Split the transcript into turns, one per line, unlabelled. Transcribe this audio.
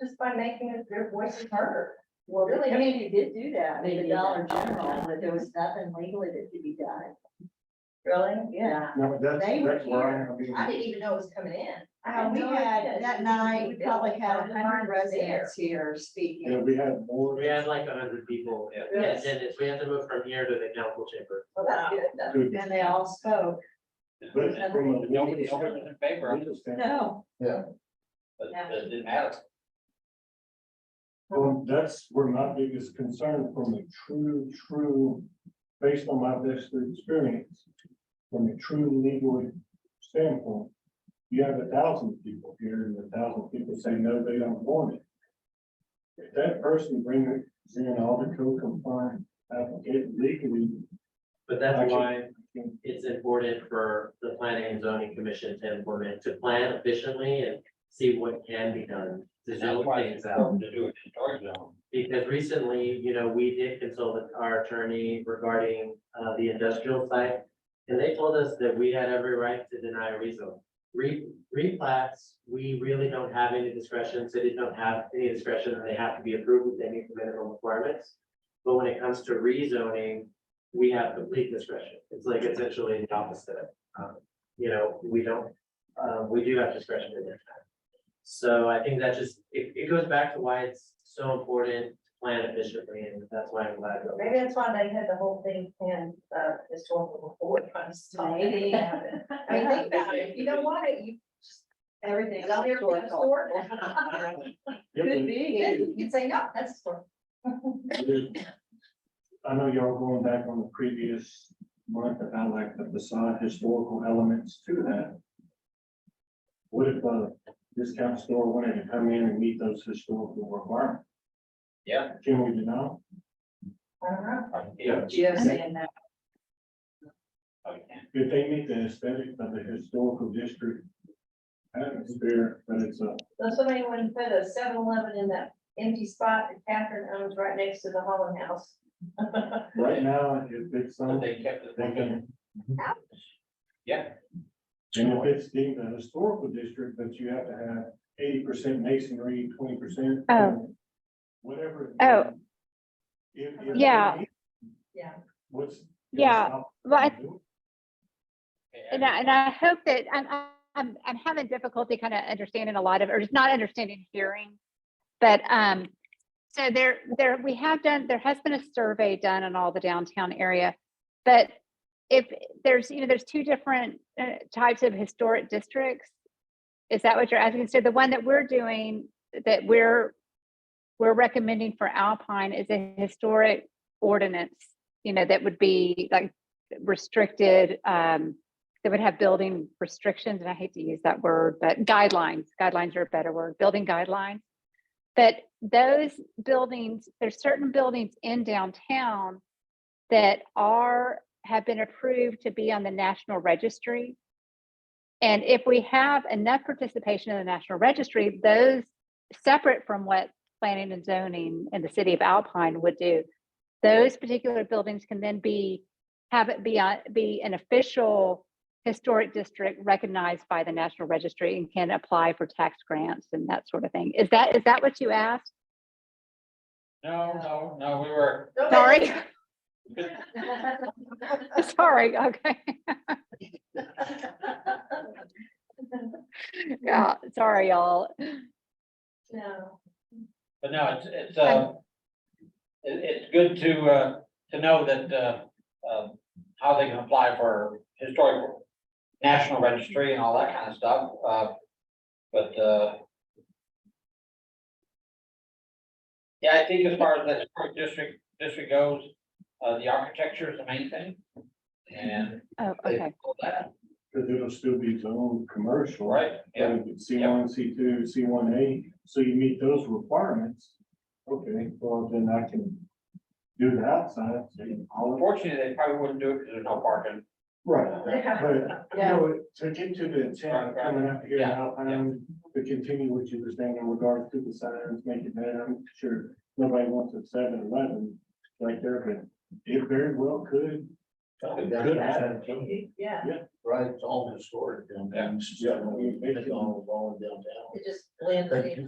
just by making their voices heard.
Well, really,
I
I
mean,
mean, you did do that
They
with the
did that.
Dollar General, but there was nothing legally that could be done.
Really?
Yeah.
No, that's,
They were
that's where I'm, I
I
mean,
didn't even know it was coming in.
Uh, we
No,
had,
yes,
that
we
night, we
did.
probably had a
There.
hundred residents here
yeah,
speaking.
we had more.
We had like a hundred people.
Yeah.
And
Yes.
then if we had to move from here to the council chamber.
Well, that's good. That's-
to-
And they all spoke.
But from a legal
Nobody else was
standpoint,
in favor of it,
legal standpoint,
No,
but
Yeah.
it didn't matter.
well, that's where my biggest concern from a true, true, based on my best experience, from a true legal standpoint, you have a thousand people here and a thousand people say, no, they don't want it. If that person brings in all the co-compliant application legally,
But that's
Actually-
why it's important for the planning and zoning commission to implement, to plan efficiently and see what can be done to
And that's
zone
why
things
it's
out.
important to do it in charge zone.
Because recently, you know, we did consult with our attorney regarding uh the industrial site. And they told us that we had every right to deny a rezone. Re, replats, we really don't have any discretion, cities don't have any discretion, and they have to be approved with any minimum requirements. But when it comes to rezoning, we have complete discretion. It's like essentially the opposite. Um, You know, we don't, uh, we do have discretion in there. So I think that just, it, it goes back to why it's so important to plan efficiently, and that's why I'm glad. that-
Maybe that's why they had the whole thing planned, uh, historical report trying to stop
Maybe.
it happening. I mean, think about it. If You don't want it, you
everything's
go there for the
historical.
store.
Yeah,
Could
but-
be.
You can say, no, that's the store.
I know y'all going back on the previous month about like the facade historical elements to that. What if a discount store wanted to come in and meet those historical requirements?
Yeah.
Can we deny?
I don't know.
Yeah.
Just saying that.
If they meet the aesthetic of the historical district atmosphere, but it's a,
So somebody went and put a 7-Eleven in that empty spot that Catherine owns right next to the Holland House.
right now, if it's
But
something,
they kept it,
they can
yeah.
And if it's deemed a historical district, that you have to have eighty percent masonry, twenty percent. um,
Oh.
Whatever. it
Oh.
is. If- if-
Yeah.
Yeah.
What's.
Yeah, well, I-
Okay,
And I, and I hope that, I'm, I'm, I'm having difficulty kind of understanding a lot of, or just not understanding hearing. But, um, so there, there, we have done, there has been a survey done in all the downtown area. But if there's, you know, there's two different uh, types of historic districts. Is that what you're asking? So the one that we're doing, that we're, we're recommending for Alpine is a historic ordinance, you know, that would be like restricted, um, that would have building restrictions, and I hate to use that word, but guidelines, guidelines are a better word, building guidelines. But those buildings, there's certain buildings in downtown that are, have been approved to be on the national registry. And if we have enough participation in the national registry, those separate from what planning and zoning in the city of Alpine would do, those particular buildings can then be, have it be, on- be an official historic district recognized by the National Registry and can apply for tax grants and that sort of thing. Is that, is that what you asked?
No, no, no, we were,
Sorry,
Sorry.
sorry, okay. Yeah, sorry, y'all.
No.
but no, it's, it's, uh, it, it's good to, uh, to know that, uh, um, how they can apply for historical, national registry and all that kind of stuff, uh, but, uh, yeah, I think as far as the historic district, district goes, uh, the architecture is the main thing. And
Oh,
they
okay.
pull that,
Cause it'll still be its own commercial.
right, yeah,
C one, C two, C one A, so you meet those requirements. Okay, well, then I can do the outside. so you can call it-
unfortunately, they probably wouldn't do it because there's no parking.
Right, but, you
Yeah.
know, to get to the intent, of coming up here,
Yeah,
how, um, to continue what you were saying in regards to the signs, make it better, I'm sure nobody wants a 7-Eleven right there, but it very well could. could happen.
Yeah,
Right, it's all historic down there.
Yeah.
It's all, all downtown.
it just blends in.